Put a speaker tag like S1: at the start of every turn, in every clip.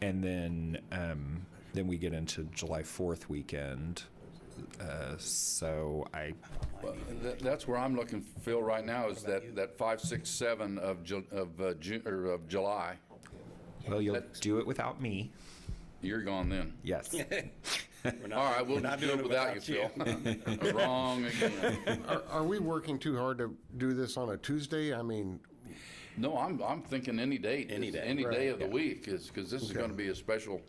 S1: and then um, then we get into July Fourth weekend. Uh, so I
S2: Th- That's where I'm looking, Phil, right now, is that, that five, six, seven of Ju, of, uh, Ju, or of July.
S1: well, you'll
S2: That's-
S1: do it without me.
S2: You're gone then.
S1: Yes.
S2: All right, we'll
S3: not
S2: do
S3: doing
S2: it without you, Phil. Wrong again.
S4: Are, are we working too hard to do this on a Tuesday? I mean,
S2: No, I'm, I'm thinking any date.
S3: Any
S2: is-
S3: day.
S2: Any day
S4: Right.
S2: of the week is, because this is going to be a special,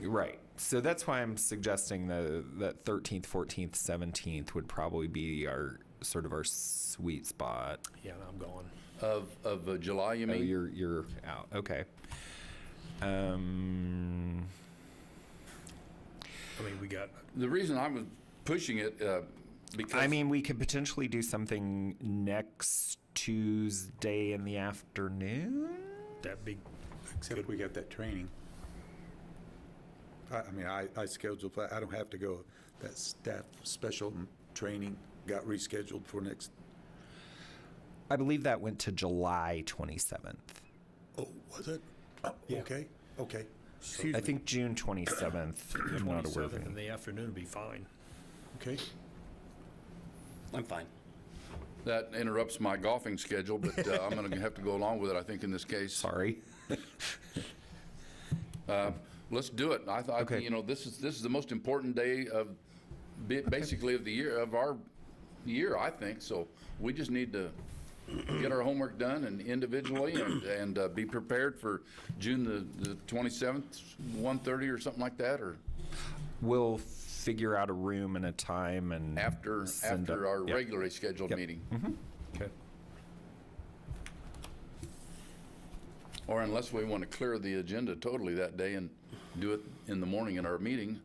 S1: Right. So that's why I'm suggesting the that 13th, 14th, 17th would probably be our sort of our sweet spot.
S5: Yeah, I'm going.
S2: of, of uh, July, you
S1: Oh,
S2: mean?
S1: you're you're out. Okay. Um.
S5: I mean, we got
S2: The reason I was pushing it, uh, because.
S1: I mean, we could potentially do something next Tuesday in the afternoon.
S5: that big.
S6: Except we got that training. I, I mean, I, I scheduled, that. I don't have to go, that staff special training got rescheduled for next,
S1: I believe that went to July 27th.
S6: oh, was it? Oh, Okay, okay.
S1: I
S6: Excuse me,
S1: think June 27th. I'm not aware of
S5: 27th in
S1: any.
S5: the afternoon would be fine.
S6: okay.
S3: I'm fine.
S2: That interrupts my golfing schedule, but uh, I'm going to have to go along with it, I think, in this case.
S1: Sorry.
S2: Let's do it. I thought,
S1: Okay.
S2: you know, this is, this is the most important day of, ba- basically of the year, of our year, I think. So we just need to get our homework done and individually and, and uh, be prepared for June the, the 27th, 1:30 or something like that, or
S1: We'll figure out a room and a time and
S2: after,
S1: send
S2: after
S1: up-
S2: our
S1: yeah.
S2: regularly scheduled
S1: Yep. Mm-hmm.
S2: meeting.
S1: Okay.
S2: Or unless we want to clear the agenda totally that day and do it in the morning in our meeting.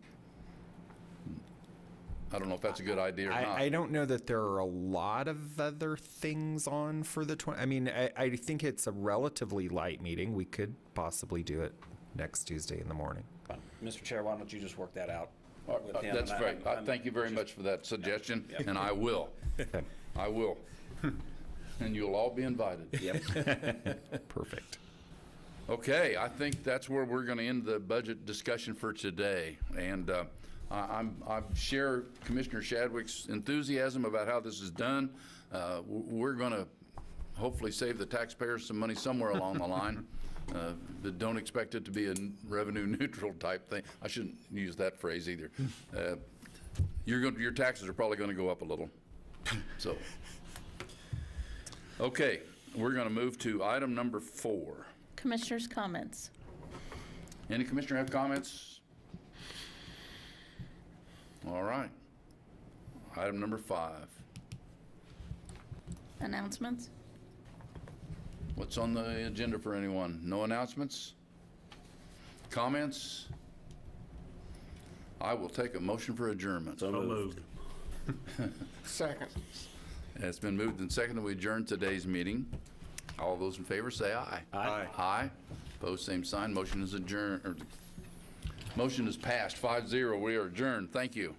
S2: I don't know if that's a good idea or
S1: I, I
S2: not.
S1: don't know that there are a lot of other things on for the 20. I mean, I, I think it's a relatively light meeting. We could possibly do it next Tuesday in the morning.
S3: Mr. Chair, why don't you just work that out
S2: Uh,
S3: with him?
S2: That's
S3: and I-
S2: great. I
S3: I'm-
S2: Thank you very much for that suggestion, and I will. I will. And you'll all be invited.
S3: Yep.
S1: Perfect.
S2: Okay, I think that's where we're going to end the budget discussion for today. And uh, I I'm- I share Commissioner Shadwick's enthusiasm about how this is done. Uh, w- We're going to hopefully save the taxpayers some money somewhere along the line. Uh, But don't expect it to be a n- revenue neutral type thing. I shouldn't use that phrase either. Uh, You're going, your taxes are probably going to go up a little, so. Okay, we're going to move to item number four.
S7: Commissioners' comments.
S2: Any commissioner have comments? All right. Item number five.
S7: Announcements?
S2: What's on the agenda for anyone? No announcements? Comments? I will take a motion for adjournment.
S5: So moved.
S4: second.
S2: It's been moved and seconded. We adjourn today's meeting. All those in favor say aye.
S6: Aye.
S2: Aye. Opposed, same sign. Motion is adjourned, or, motion is passed, five zero. We are adjourned. Thank you.